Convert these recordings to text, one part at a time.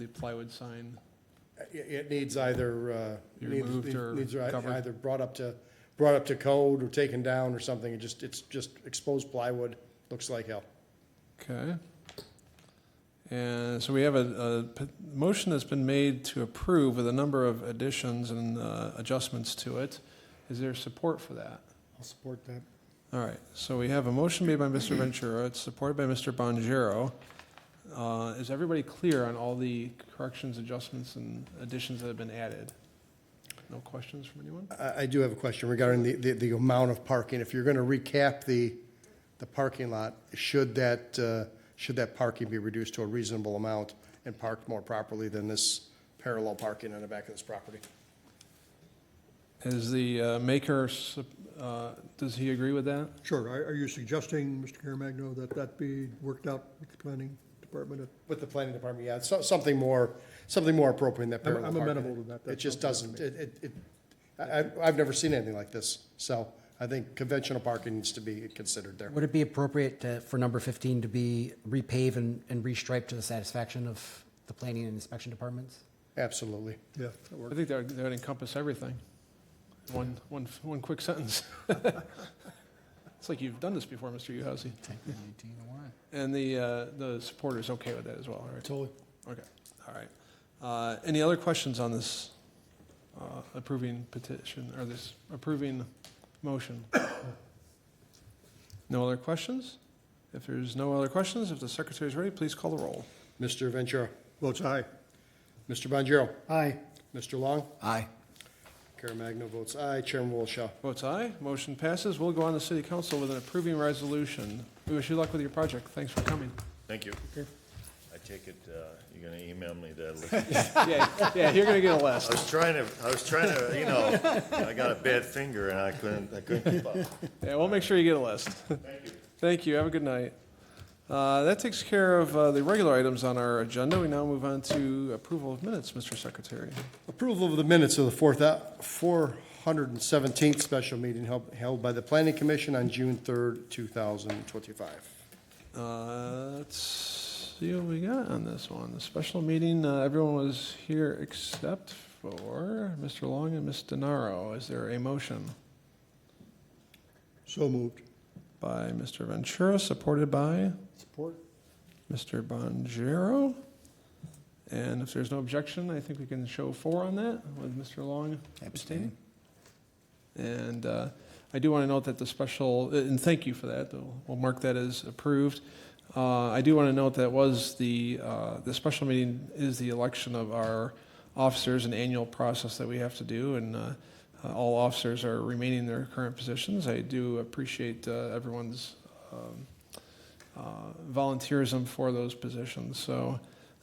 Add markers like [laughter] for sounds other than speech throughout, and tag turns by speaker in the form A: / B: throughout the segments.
A: big plywood sign.
B: It, it needs either, uh,
A: Be
B: needs-
A: removed
B: needs-
A: or
B: needs ei-
A: covered?
B: Either brought up to, brought up to code or taken down or something, it just, it's just exposed plywood, looks like hell.
A: Okay. And so we have a, a p- motion that's been made to approve with a number of additions and uh, adjustments to it. Is there support for that?
C: I'll support that.
A: All right, so we have a motion made by Mr. Ventura, it's supported by Mr. Bonjero. Uh, Is everybody clear on all the corrections, adjustments, and additions that have been added? No questions from anyone?
B: I, I do have a question regarding the, the, the amount of parking. If you're gonna recap the, the parking lot, should that, uh, should that parking be reduced to a reasonable amount and parked more properly than this parallel parking on the back of this property?
A: Is the uh, maker, sup- uh, does he agree with that?
C: Sure. Are, are you suggesting, Mr. Caremagno, that that be worked out with the planning department?
B: With the planning department, yeah, so, something more, something more appropriate than that
C: I'm-
B: parallel
C: I'm
B: parking.
C: amenable to that.
B: It
C: That's
B: just
C: something
B: doesn't, it, it, it, I, I- I've never seen anything like this, so I think conventional parking needs to be considered there.
D: Would it be appropriate to- for number 15 to be repave and and restripe to the satisfaction of the planning and inspection departments?
B: Absolutely.
C: Yeah, that
A: I
C: works.
A: think that would- that would encompass everything. One, one, one quick sentence. [laughs] It's like you've done this before, Mr. Uhousey. And the, uh, the supporter's okay with that as well, right?
C: Totally.
A: Okay, all right. Uh, Any other questions on this uh, approving petition, or this approving motion? No other questions? If there's no other questions, if the secretary's ready, please call the roll.
B: Mr. Ventura?
C: Votes aye.
B: Mr. Bonjero?
C: Aye.
B: Mr. Long?
D: Aye.
B: Caremagna votes aye. Chairman Wolschow.
A: Votes aye, motion passes. We'll go on to city council with an approving resolution. We wish you luck with your project. Thanks for coming.
E: Thank you. I take it, uh, you're gonna email me that list?
A: [laughs] Yeah, yeah, you're gonna get a list.
E: I was trying to, I was trying to, you know, I got a bad finger and I couldn't, I couldn't keep up.
A: Yeah, we'll make sure you get a list. Thank you. Thank you, have a good night. Uh, That takes care of uh, the regular items on our agenda. We now move on to approval of minutes, Mr. Secretary.
B: Approval of the minutes of the fourth, uh, four hundred and seventeenth special meeting held, held by the planning commission on June third, two thousand twenty-five.
A: Uh, Let's see what we got on this one. The special meeting, uh, everyone was here except for Mr. Long and Ms. DeNaro. Is there a motion
C: So moved.
A: by Mr. Ventura, supported by
C: Support.
A: Mr. Bonjero? And if there's no objection, I think we can show four on that with Mr. Long abstaining. And uh, I do want to note that the special, uh, and thank you for that, though. we'll mark that as approved. Uh, I do want to note that was the, uh, the special meeting is the election of our officers, an annual process that we have to do, and uh, uh, all officers are remaining in their current positions. I do appreciate uh, everyone's um, uh, volunteerism for those positions. So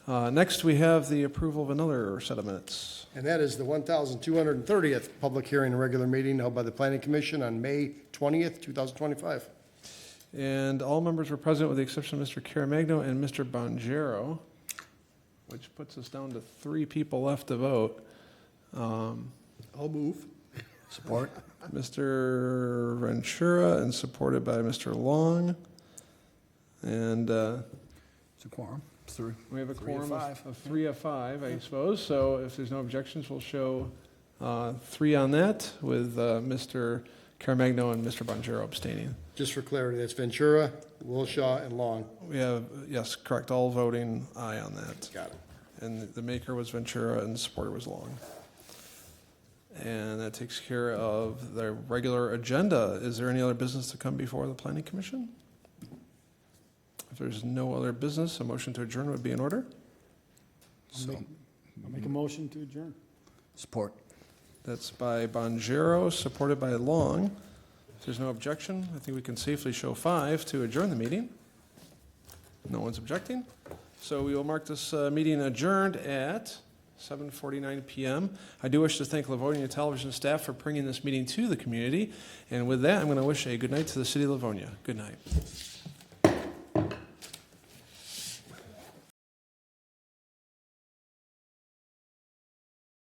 A: uh, next, we have the approval of another set of minutes.
B: And that is the one thousand two hundred and thirtieth public hearing and regular meeting held by the planning commission on May twentieth, two thousand twenty-five.
A: And all members were present with the exception of Mr. Caremagno and Mr. Bonjero, which puts us down to three people left to vote. Um,
C: I'll move.
D: Support?
A: Mr. Ventura and supported by Mr. Long. And uh,
D: It's a quorum. Three.
A: we have a
D: Three of
A: quorum of
D: five.
A: of three of five, I suppose. So if there's no objections, we'll show uh, three on that with uh, Mr. Caremagno and Mr. Bonjero abstaining.
B: Just for clarity, that's Ventura, Wilshaw, and Long.
A: We have, yes, correct, all voting aye on that.
B: Got it.
A: And the maker was Ventura and the supporter was Long. And that takes care of the regular agenda. Is there any other business to come before the planning commission? If there's no other business, a motion to adjourn would be in order.
C: I'll make a motion to adjourn.
D: Support.
A: That's by Bonjero, supported by Long. If there's no objection, I think we can safely show five to adjourn the meeting. No one's objecting. So we will mark this uh, meeting adjourned at 7:49 PM. I do wish to thank Livonia Television staff for bringing this meeting to the community. And with that, I'm going to wish a good night to the city of Livonia. Good night.